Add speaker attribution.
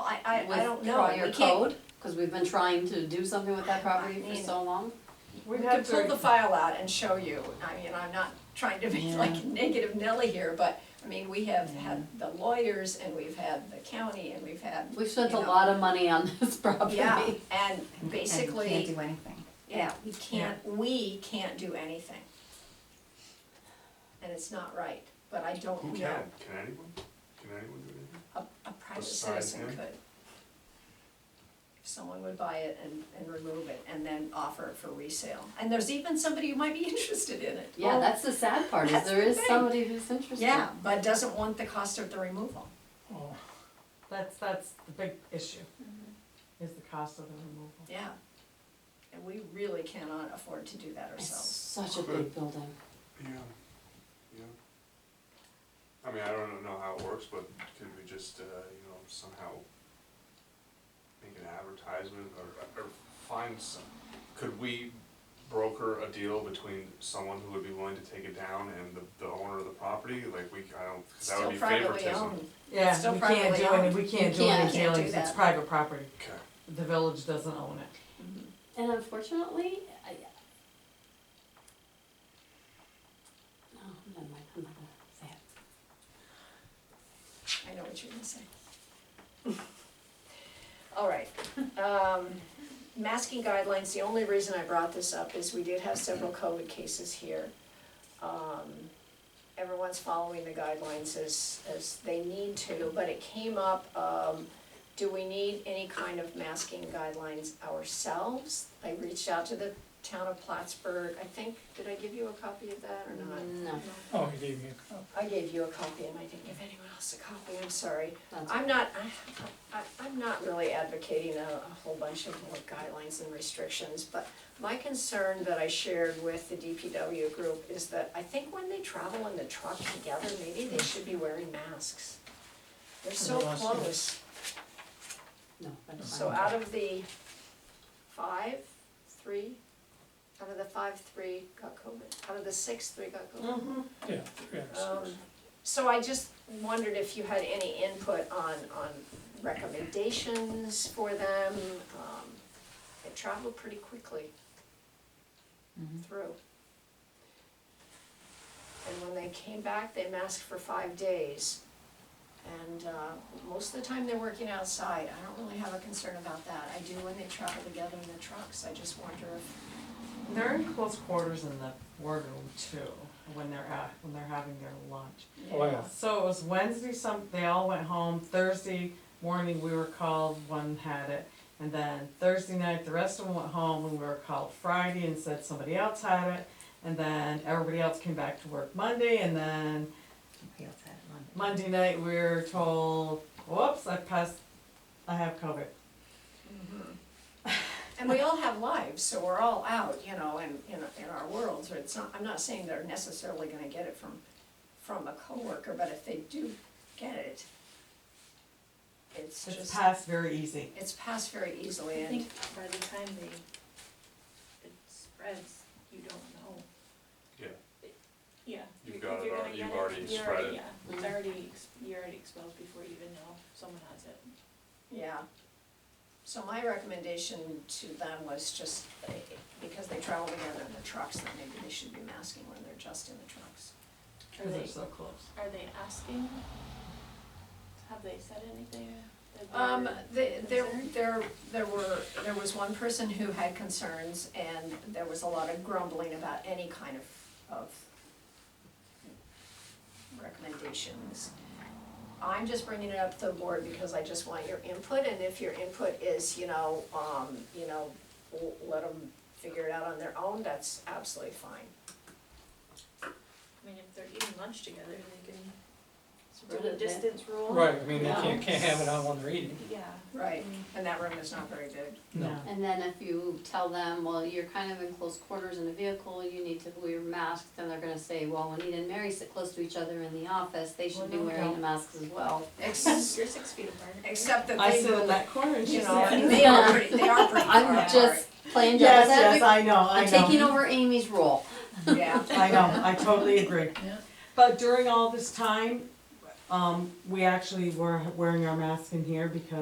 Speaker 1: I, I don't know, we
Speaker 2: With prior
Speaker 1: can't,
Speaker 2: code, because we've been trying to do something with that property for so long.
Speaker 1: we
Speaker 3: We've
Speaker 1: can
Speaker 3: had
Speaker 1: pull
Speaker 3: very,
Speaker 1: the file out and show you, I mean, I'm not trying to be
Speaker 3: Yeah.
Speaker 1: like negative Nelly here, but, I mean, we have had the lawyers and we've had the county and we've had,
Speaker 2: We've spent a
Speaker 1: You know.
Speaker 2: lot of money on this property.
Speaker 1: yeah, and
Speaker 4: And can't
Speaker 1: basically,
Speaker 4: do anything.
Speaker 1: yeah, we can't, we can't do anything. And it's not right, but I don't
Speaker 5: Who
Speaker 1: know,
Speaker 5: can? Can anyone? Can anyone do anything?
Speaker 1: a, a private
Speaker 5: Aside,
Speaker 1: citizen
Speaker 5: yeah.
Speaker 1: could. Someone would buy it and, and remove it and then offer it for resale, and there's even somebody who might be interested in it.
Speaker 2: Yeah, that's the sad part, is
Speaker 1: That's
Speaker 2: there
Speaker 1: the
Speaker 2: is
Speaker 1: thing.
Speaker 2: somebody who's interested.
Speaker 1: Yeah, but doesn't want the cost of the removal.
Speaker 3: Oh, that's, that's the big issue, is the cost of the removal.
Speaker 1: Yeah. And we really cannot afford to do that
Speaker 2: It's
Speaker 1: ourselves.
Speaker 2: such a big building.
Speaker 5: Yeah, yeah. I mean, I don't know how it works, but could we just, uh, you know, somehow make an advertisement or, or find some, could we broker a deal between someone who would be willing to take it down and the, the owner of the property? Like, we, I don't, cause that would
Speaker 1: Still
Speaker 5: be
Speaker 1: privately
Speaker 5: favoritism.
Speaker 1: owned.
Speaker 3: Yeah,
Speaker 1: Still
Speaker 3: we can't do
Speaker 1: privately
Speaker 3: any, we can't
Speaker 2: You
Speaker 3: do
Speaker 2: can't-
Speaker 3: any
Speaker 1: can't do
Speaker 3: dealings, it's
Speaker 1: that.
Speaker 3: private property,
Speaker 5: Okay.
Speaker 3: the village doesn't own it.
Speaker 2: And unfortunately, I. No, Oh, never mind, I'm not gonna say it.
Speaker 1: I know what you're gonna say. All right, um, masking guidelines, the only reason I brought this up is we did have several COVID cases here. Um, everyone's following the guidelines as, as they need to, but it came up, um, do we need any kind of masking guidelines ourselves? I reached out to the town of Plattsburgh, I think, did I give you a copy of that or not?
Speaker 2: No,
Speaker 6: Oh, he gave me a copy.
Speaker 1: I gave you a copy and I didn't give anyone else a copy, I'm sorry.
Speaker 2: that's.
Speaker 1: I'm not, I, I- I'm not really advocating a, a whole bunch of more guidelines and restrictions, but my concern that I shared with the DPW group is that I think when they travel in the truck together, maybe they should be wearing masks. They're so
Speaker 6: Everyone else, yeah.
Speaker 1: close,
Speaker 2: No, that's
Speaker 1: so
Speaker 2: fine.
Speaker 1: out of the five, three, out of the five, three got COVID, out of the six, three got COVID.
Speaker 6: Yeah, three out of
Speaker 1: Um,
Speaker 6: six.
Speaker 1: So I just wondered if you had any input on, on recommendations for them. Um, They traveled pretty quickly through. And when they came back, they masked for five days. And uh, most of the time, they're working outside. I don't really have a concern about that. I do when they travel together in the trucks. I just wonder if,
Speaker 3: They're in close quarters in the boardroom too, when they're at, when they're having their lunch.
Speaker 6: Oh, yeah.
Speaker 3: So it was Wednesday, some, they all went home, Thursday morning we were called, one had it. And then Thursday night, the rest of them went home and we were called Friday and said somebody else had it. And then everybody else came back to work Monday and then
Speaker 4: Somebody else had it on.
Speaker 3: Monday night we were told, whoops, I passed, I have COVID.
Speaker 1: And we all have lives, so we're all out, you know, in, in, in our worlds, or it's not, I'm not saying they're necessarily gonna get it from, from a coworker, but if they do get it, it's
Speaker 3: It's
Speaker 1: just,
Speaker 3: passed very easy.
Speaker 1: it's passed very easily
Speaker 7: I
Speaker 1: and,
Speaker 7: think by the time they, it spreads, you don't know.
Speaker 5: Yeah.
Speaker 7: Yeah.
Speaker 5: You've
Speaker 7: because
Speaker 5: got it
Speaker 7: you're
Speaker 5: al-
Speaker 7: gonna
Speaker 5: you've
Speaker 7: get
Speaker 5: already
Speaker 7: you're
Speaker 5: spread
Speaker 7: already-
Speaker 5: it.
Speaker 7: Yeah,
Speaker 1: Mm-hmm.
Speaker 7: it's already, ex- you're already exposed before you even know someone has it.
Speaker 1: yeah. So my recommendation to them was just, eh, because they travel together in the trucks, that maybe they should be masking when they're just in the trucks.
Speaker 7: Are
Speaker 3: Cause they're
Speaker 7: they,
Speaker 3: so close.
Speaker 7: are they asking? Have they said anything? that they're-
Speaker 1: Um, the, there, there, there were, there was one person who had concerns and there was a lot of grumbling about any kind of, of recommendations. I'm just bringing it up to the board because I just want your input and if your input is, you know, um, you know, l- let them figure it out on their own, that's absolutely fine.
Speaker 7: I mean, if they're eating lunch together, they can
Speaker 2: Spread
Speaker 7: do a
Speaker 2: it, yeah.
Speaker 7: distance rule.
Speaker 6: Right, I mean, they
Speaker 2: Yeah.
Speaker 6: can't, can't have it on while they're eating.
Speaker 7: Yeah.
Speaker 1: Right. And that room is not very big.
Speaker 6: No.
Speaker 2: And then if you tell them, well, you're kind of in close quarters in a vehicle, you need to wear masks, then they're gonna say, well, when Anita and Mary sit close to each other in the office, they should be
Speaker 3: Well, no,
Speaker 2: wearing a
Speaker 3: don't.
Speaker 2: mask as well.
Speaker 1: Ex-
Speaker 7: You're six feet apart. right?
Speaker 1: Except that
Speaker 3: I
Speaker 1: they,
Speaker 3: sit in
Speaker 1: move,
Speaker 3: that corner and
Speaker 1: you
Speaker 3: she's
Speaker 1: know, and
Speaker 3: like,
Speaker 1: they are pretty, they are pretty far
Speaker 2: I'm
Speaker 1: apart.
Speaker 2: just playing
Speaker 3: yes,
Speaker 2: devil's
Speaker 3: yes,
Speaker 2: advocate,
Speaker 3: I know, I
Speaker 2: I'm
Speaker 3: know.
Speaker 2: taking over Amy's role.
Speaker 1: Yeah.
Speaker 3: I know, I totally agree. But during all this time, um, we actually were wearing our masks in here because